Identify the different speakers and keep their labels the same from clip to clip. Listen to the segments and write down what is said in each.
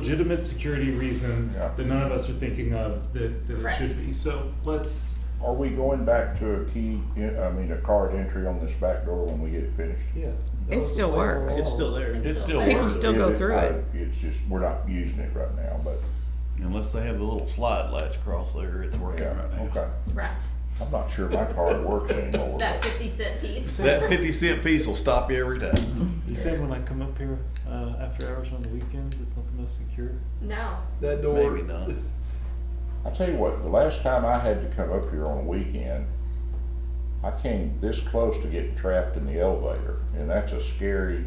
Speaker 1: legitimate security reason
Speaker 2: Yeah.
Speaker 1: that none of us are thinking of that, that it
Speaker 3: Correct.
Speaker 1: should be. So let's,
Speaker 2: Are we going back to a key, I mean, a card entry on this back door when we get it finished?
Speaker 4: Yeah.
Speaker 5: It still works.
Speaker 4: It's still there.
Speaker 3: It's
Speaker 6: It's
Speaker 3: still
Speaker 6: still
Speaker 3: there.
Speaker 5: People
Speaker 6: worth it.
Speaker 5: still go through
Speaker 2: I-
Speaker 5: it.
Speaker 2: It's just, we're not using it right now, but,
Speaker 6: Unless they have the little slide latch across there, it's working
Speaker 2: yeah,
Speaker 6: right now.
Speaker 2: okay.
Speaker 3: Right.
Speaker 2: I'm not sure my card works anymore.
Speaker 3: That fifty cent piece.
Speaker 6: That fifty cent piece will stop you every time.
Speaker 7: You said when I come up here uh, after hours on the weekends, it's not the most secure.
Speaker 3: No.
Speaker 4: That door.
Speaker 6: Maybe not.
Speaker 2: I tell you what, the last time I had to come up here on a weekend, I came this close to getting trapped in the elevator, and that's a scary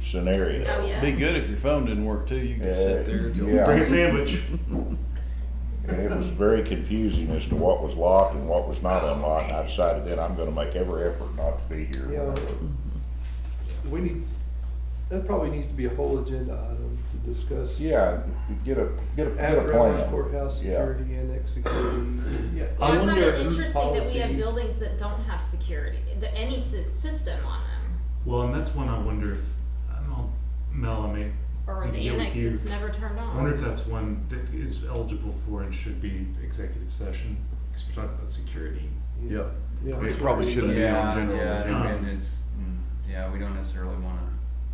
Speaker 2: scenario.
Speaker 3: Oh yeah.
Speaker 6: Be good if your phone didn't work too. You could sit there till.
Speaker 2: Yeah.
Speaker 1: bring a sandwich.
Speaker 2: And it was very confusing as to what was locked and what was not unlocked, and I decided then I'm gonna make every effort not to be here.
Speaker 4: Yeah. We need, that probably needs to be a whole agenda item to discuss.
Speaker 2: Yeah, get a, get a, get a
Speaker 4: After hours
Speaker 2: plan.
Speaker 4: courthouse
Speaker 2: Yeah,
Speaker 4: security, annex security. Yeah.
Speaker 3: Well, I, find
Speaker 1: wonder-
Speaker 3: it interesting that we have
Speaker 4: Policy.
Speaker 3: buildings that don't have security, that any sy- system on them,
Speaker 1: Well, and that's one I wonder if, I don't know, Mel, I mean,
Speaker 3: or
Speaker 1: We
Speaker 3: the
Speaker 1: can deal with
Speaker 3: annex
Speaker 1: you.
Speaker 3: that's never turned
Speaker 1: I wonder if
Speaker 3: on.
Speaker 1: that's one that is eligible for and should be executive session, because we're talking about security.
Speaker 6: Yep.
Speaker 4: Yeah.
Speaker 6: It probably shouldn't be on
Speaker 8: Yeah,
Speaker 6: general.
Speaker 8: yeah,
Speaker 1: general.
Speaker 8: and it's, mm, yeah, we don't necessarily wanna,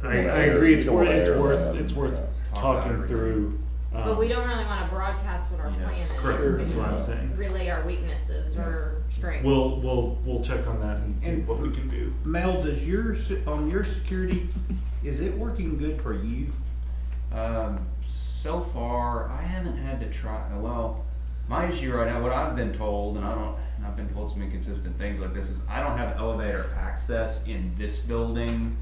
Speaker 1: I, I
Speaker 2: Yeah.
Speaker 1: agree, it's
Speaker 2: Yeah.
Speaker 1: worth, it's
Speaker 2: Yeah.
Speaker 1: worth, it's worth
Speaker 8: Yeah.
Speaker 1: talking through. um,
Speaker 3: But we don't really wanna broadcast what our
Speaker 8: Yeah.
Speaker 3: plan is.
Speaker 1: Correct,
Speaker 3: We
Speaker 1: that's what I'm saying.
Speaker 3: Relay our weaknesses or strengths.
Speaker 1: We'll, we'll, we'll check on that and see what we can do.
Speaker 9: Mel, does your, se- on your security, is it working good for you?
Speaker 8: um, so far, I haven't had to try, well, my issue right now, what I've been told, and I don't, and I've been told some inconsistent things like this, is I don't have elevator access in this building.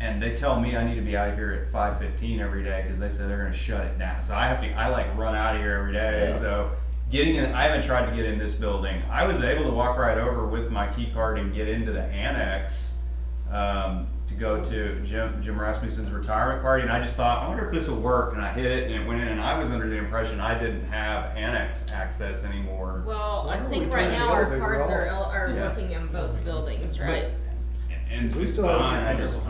Speaker 8: And they tell me I need to be out of here at five fifteen every day, cause they say they're gonna shut it down, so I have to, I like run out of here every day,
Speaker 2: Yeah.
Speaker 8: so. Getting in, I haven't tried to get in this building, I was able to walk right over with my key card and get into the annex. um, to go to Jim Jim Rasmussen's retirement party, and I just thought, I wonder if this will work. And I hit it, and it went in, and I was under the impression I didn't have annex access anymore.
Speaker 3: Well, I
Speaker 4: Why don't we
Speaker 3: think right
Speaker 4: turn
Speaker 3: now
Speaker 4: the
Speaker 3: our
Speaker 4: elevator
Speaker 3: cards are,
Speaker 4: off?
Speaker 3: el- are
Speaker 8: Yeah.
Speaker 3: working in both buildings, right?
Speaker 8: And
Speaker 4: We
Speaker 8: it's
Speaker 4: still have-
Speaker 8: fine, I just-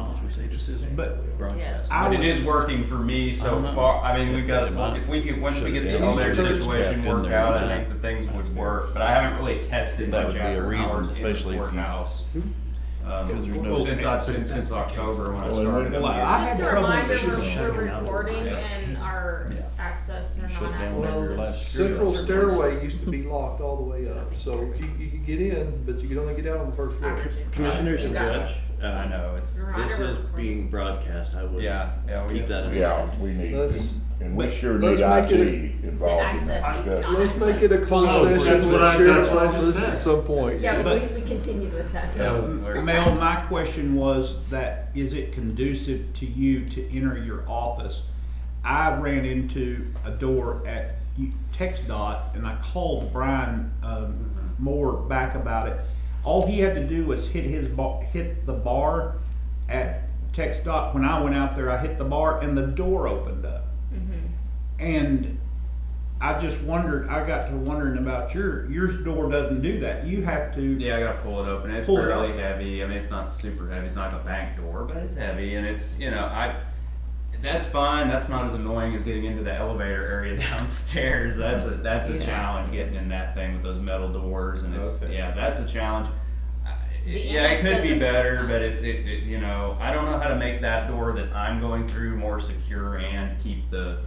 Speaker 6: But
Speaker 3: Yes.
Speaker 8: but it is working for me
Speaker 6: I
Speaker 8: so
Speaker 6: don't know.
Speaker 8: far. I mean, we've got
Speaker 6: They might
Speaker 8: if we get once we
Speaker 6: shut
Speaker 8: get
Speaker 6: it
Speaker 8: the
Speaker 6: down.
Speaker 8: elevator
Speaker 6: It's
Speaker 8: situation
Speaker 6: trapped in
Speaker 8: worked
Speaker 6: there,
Speaker 8: out, I
Speaker 6: yeah.
Speaker 8: think the things would work. But I haven't really tested
Speaker 6: That
Speaker 8: much
Speaker 6: would be a
Speaker 8: after
Speaker 6: reason,
Speaker 8: hours
Speaker 6: especially
Speaker 8: in
Speaker 6: if
Speaker 8: the
Speaker 6: you-
Speaker 8: courthouse.
Speaker 2: Hmm?
Speaker 8: Um,
Speaker 6: 'Cause there's no-
Speaker 8: since I since, since October when I
Speaker 2: Well, it
Speaker 8: started.
Speaker 2: would-
Speaker 8: I'm
Speaker 2: Well,
Speaker 8: here.
Speaker 9: I
Speaker 3: Just
Speaker 9: had
Speaker 3: a
Speaker 9: trouble-
Speaker 3: reminder,
Speaker 9: She's
Speaker 3: we're,
Speaker 7: shutting
Speaker 3: we're
Speaker 7: out.
Speaker 3: recording
Speaker 6: Yeah.
Speaker 3: and our
Speaker 6: Yeah.
Speaker 3: access and
Speaker 6: Shut down
Speaker 3: non-access
Speaker 6: whatever
Speaker 3: is.
Speaker 6: last-
Speaker 4: Central
Speaker 3: Sure.
Speaker 4: stairway used to be locked all the way up, so you, you could get in, but you could only get out on the first floor.
Speaker 9: Commissioners and
Speaker 3: You got it.
Speaker 9: Judge,
Speaker 8: I
Speaker 9: uh,
Speaker 8: know it's
Speaker 9: this is being broadcast, I would
Speaker 8: yeah yeah we
Speaker 9: keep that in
Speaker 2: yeah,
Speaker 9: mind.
Speaker 2: we need,
Speaker 4: Let's-
Speaker 2: and we sure need
Speaker 4: let's
Speaker 2: IT
Speaker 4: make it
Speaker 2: involved in that
Speaker 3: access.
Speaker 2: discussion.
Speaker 4: Let's make it a
Speaker 1: Well,
Speaker 4: closed
Speaker 1: that's
Speaker 4: session with
Speaker 1: what I-
Speaker 4: the sheriff's
Speaker 1: that's what I just
Speaker 4: office
Speaker 1: said.
Speaker 4: at some point.
Speaker 3: Yeah,
Speaker 9: But-
Speaker 3: we, we continued with that.
Speaker 8: Yeah.
Speaker 9: Mel, my question was that, is it conducive to you to enter your office? I ran into a door at U- Tex dot and I called Brian, um, Moore back about it. All he had to do was hit his bar, hit the bar at Tex dot. When I went out there, I hit the bar and the door opened up. And I just wondered, I got to wondering about your, your door doesn't do that. You have to.
Speaker 8: Yeah, I gotta pull it open. It's
Speaker 9: Pull it
Speaker 8: fairly
Speaker 9: up.
Speaker 8: heavy. I mean, it's not super heavy. It's not like a bank door, but it's heavy, and it's you know I. That's fine. That's not as annoying as getting into the elevator area downstairs. That's a that's a
Speaker 9: Yeah.
Speaker 8: challenge getting in that thing with those metal doors, and it's
Speaker 4: Okay.
Speaker 8: yeah, that's a challenge. I-
Speaker 3: The
Speaker 8: Yeah, it
Speaker 3: annex
Speaker 8: could be
Speaker 3: doesn't-
Speaker 8: better, but it's it, it you know I don't know how to make that door that I'm going through more secure and keep the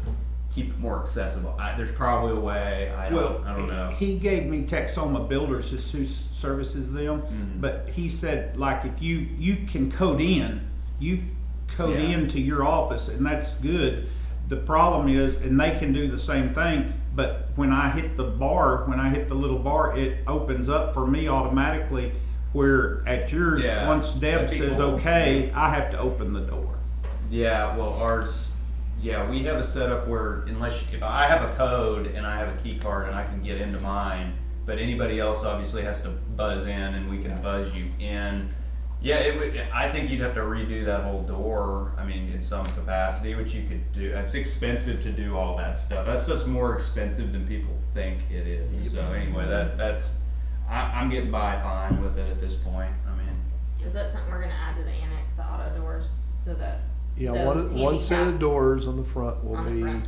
Speaker 8: keep it more accessible. I, there's probably a way. I don't,
Speaker 9: Well,
Speaker 8: I don't know.
Speaker 9: He gave me Texoma Builders is who s- services them,
Speaker 8: Mhm.
Speaker 9: but he said like if you you can code in, you code
Speaker 8: Yeah.
Speaker 9: in to your office and that's good. The problem is, and they can do the same thing, but when I hit the bar, when I hit the little bar, it opens up for me automatically. Where at yours,
Speaker 8: Yeah,
Speaker 9: once Deb
Speaker 8: that'd be
Speaker 9: says
Speaker 8: cool.
Speaker 9: okay, I have to open the door.
Speaker 8: Yeah, well, ours, yeah, we have a setup where unless, if I have a code and I have a key card and I can get into mine, but anybody else obviously has to buzz in and we can buzz you in. Yeah, it would, I think you'd have to redo that whole door, I mean, in some capacity, which you could do. It's expensive to do all that stuff. That stuff's more expensive than people think it is. So anyway, that, that's, I, I'm getting by fine with it at this point. I mean,
Speaker 3: Is that something we're gonna add to the annex, the auto doors, so that Yeah,
Speaker 4: Those
Speaker 3: one, one set
Speaker 4: handicap
Speaker 3: of doors on the front will
Speaker 4: on the
Speaker 3: be
Speaker 4: front.